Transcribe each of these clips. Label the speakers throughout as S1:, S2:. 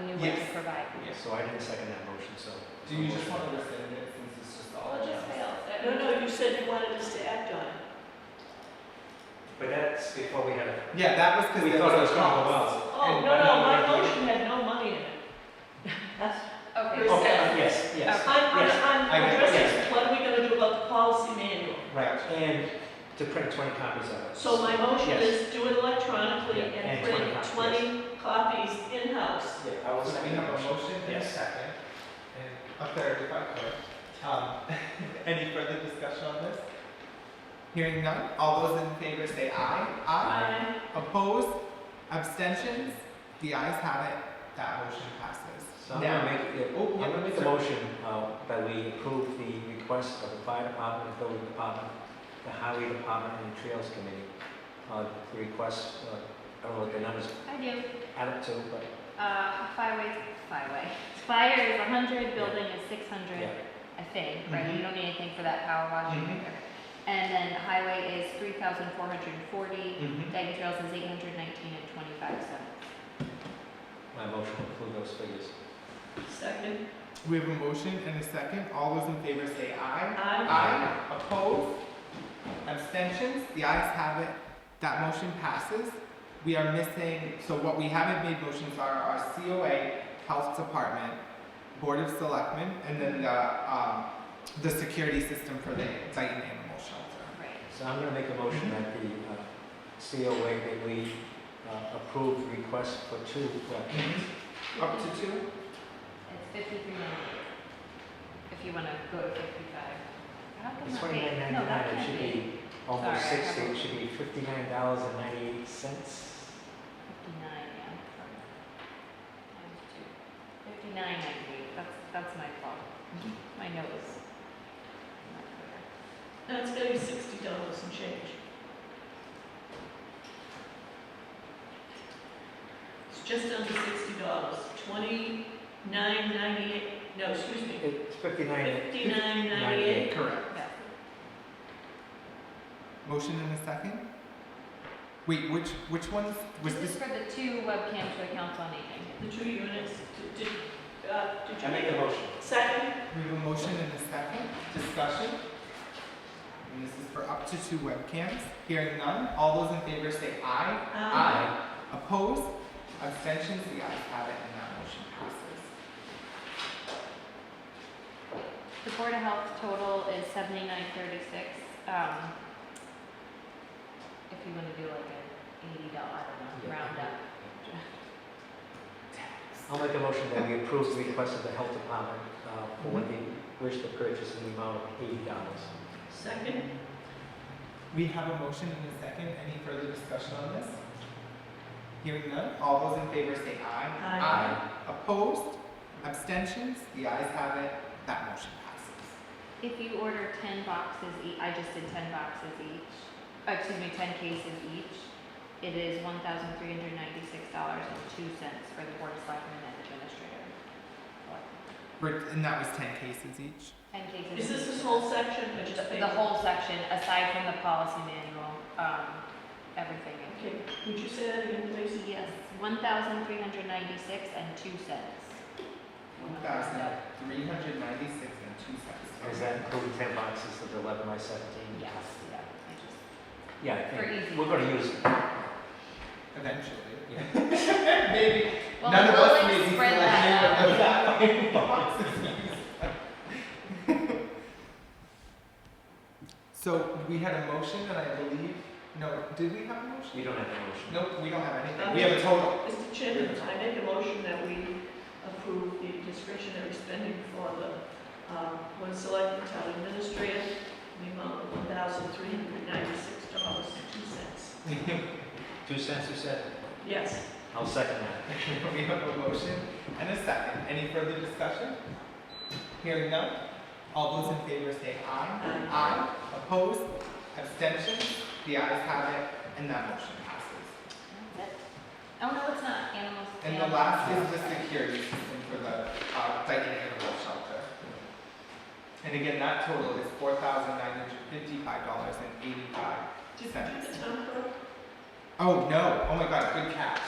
S1: going to
S2: Yes.
S1: provide.
S2: Yes.
S3: So I didn't second that motion, so.
S2: Do you just want to rescind Oh, it since it's just all?
S1: Oh,
S4: Well, it just
S2: announced?
S4: fails. That-
S5: No, no, you said you wanted us to act on it.
S3: But that's before we had a.
S2: Yeah, that was because
S3: We
S2: there
S3: thought it was
S2: a
S3: going
S2: pause.
S3: well.
S5: Oh,
S2: And
S5: no,
S2: I'm
S5: no,
S2: not
S5: my
S2: gonna do it.
S5: motion had no money in it. That's-
S1: Okay,
S5: Rescind.
S1: so-
S3: Okay, uh, yes, yes.
S5: I'm, I'm,
S3: Yes,
S2: I
S5: I'm
S2: get it,
S5: addressing,
S2: yes.
S5: what are we gonna do about the policy manual?
S2: Right.
S3: And to print twenty copies of it.
S5: So my motion
S3: Yes.
S5: is do it electronically
S3: Yeah,
S5: and
S3: and
S5: print
S3: 20 copies.
S5: twenty copies in-house.
S3: Yeah, I will
S2: So we
S3: second
S2: have
S3: that
S2: a
S3: motion.
S2: motion and a
S3: Yes.
S2: second, and a third if I could. Um, Any further discussion on this? Hearing none, all those in favor say aye.
S5: Aye.
S2: Opposed? Abstentions? The ayes have it, that motion passes.
S3: So I'm
S2: Now-
S3: gonna make, yeah,
S2: Oh,
S3: I'm
S2: yeah,
S3: gonna make a
S2: sorry.
S3: motion, uh, that we approve the request of the fire department, the building department, the highway department, and the trails committee. Uh, the request, uh, I don't know what the numbers
S1: I do.
S3: add up to, but,
S1: Uh, fireway, fireway. Fire is a hundred, building is six
S3: yeah. Mm-hmm.
S1: hundred, I think, right? You
S2: Mhm.
S1: don't need anything for that power wash.
S2: Mhm.
S1: And then highway is three thousand four hundred and forty,
S2: Mhm.
S3: Mm-hmm.
S1: Dyke Trails is eight hundred nineteen and twenty-five cents.
S3: My motion will include those figures.
S5: Second.
S2: We have a motion and a second, all those in favor say aye.
S5: Aye.
S2: Aye. Opposed? Abstentions? The ayes have it. That motion passes. We are missing, so what we haven't made motions are our COA, Health Department, Board of Selectmen, and then the, um, the security system for the Dayton Animal Shelter.
S1: Right.
S3: So I'm gonna make a motion that the uh, COA, that we uh, approve request for two uh, webcams.
S2: Up to two?
S1: It's fifty-three ninety-eight. If you wanna go to fifty-five. How come
S3: It's
S1: that- wait,
S3: twenty-nine
S1: No, that
S3: ninety-nine, it
S1: can't
S3: should
S1: be.
S3: be almost
S1: Sorry, I
S3: sixty,
S1: have
S3: it should be fifty-nine dollars and ninety-eight cents.
S1: Fifty-nine, yeah, sorry. Times two. Fifty-nine ninety-eight, that's, that's my fault. My nose. Not clear.
S5: No, it's gonna be sixty dollars and change. It's just under sixty dollars, twenty-nine ninety-eight, no, excuse me,
S3: It's fifty-nine,
S5: fifty-nine ninety-eight.
S2: Correct.
S1: Yeah.
S2: Motion and a second? Wait, which, which ones? Was
S1: This
S2: this
S1: is for the two webcams for the council on aging.
S5: The two units, did- did, uh, did you?
S3: I make a motion.
S5: Second,
S2: We have a motion and a second. Discussion. And this is for up to two webcams. Hearing none, all those in favor say aye.
S5: um,
S2: Opposed? Abstentions? The ayes have it and that motion passes.
S1: The Board of Health total is seventy-nine thirty-six. Um, if you wanna do like an eighty dollar, I don't know,
S3: Yeah.
S1: round up.
S3: I'll make a motion that we approve the request of the health department uh, for
S1: Mm-hmm.
S3: what they wish to purchase in the amount of eighty dollars.
S5: second,
S2: We have a motion and a second. Any further discussion on this? Hearing none, all those in favor say aye.
S5: Aye.
S2: Opposed? Abstentions? The ayes have it. That motion passes.
S1: If you order ten boxes each, I just did ten boxes each, uh, excuse me, ten cases each, it is one thousand three hundred ninety-six dollars and two cents for the Board of Selectmen and Administrator.
S2: We're- And that was ten cases each.
S1: Ten cases.
S5: is this
S1: each.
S5: this whole section or just
S1: The
S5: paper?
S1: the whole section, aside from the policy manual, um, everything in
S5: Okay, would you say that again, please?
S1: Yes, one thousand three hundred ninety-six and two cents.
S2: One thousand three hundred ninety-six and two cents.
S3: Does that include ten boxes of the eleven by seventeen?
S1: Yes, yeah, I just,
S3: Yeah, I
S1: For easy.
S3: think, we're gonna use,
S2: Eventually.
S3: yeah.
S2: Maybe.
S1: well,
S2: None of us
S1: we'll
S2: may
S1: like
S2: be
S1: spread that out.
S2: collecting that many boxes. So we had a motion and I believe, no, did we have a motion?
S3: we don't have a motion.
S2: Nope, we don't have anything. We have a total.
S5: Mr. Chairman, I make a motion that we approve the discretionary spending for the, um, one selected town administrator, in the amount of one thousand three hundred ninety-six dollars and two cents.
S3: Two cents, you said?
S5: Yes,
S3: I'll second that.
S2: We have a motion and a second. Any further discussion? Hearing none. All those in favor say aye.
S5: Aye.
S2: Opposed? Abstentions? The ayes have it and that motion passes.
S1: That's it. Oh, no, it's not, animals.
S2: And the
S1: animals.
S2: last is the security system for the uh, Dyken Animal Shelter. And again, that total is four thousand nine hundred fifty-five dollars and eighty-five.
S5: did you do the town clerk?
S2: Oh, no, oh my god, good catch.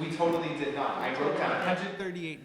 S2: We totally did not, I wrote down hundred thirty-eight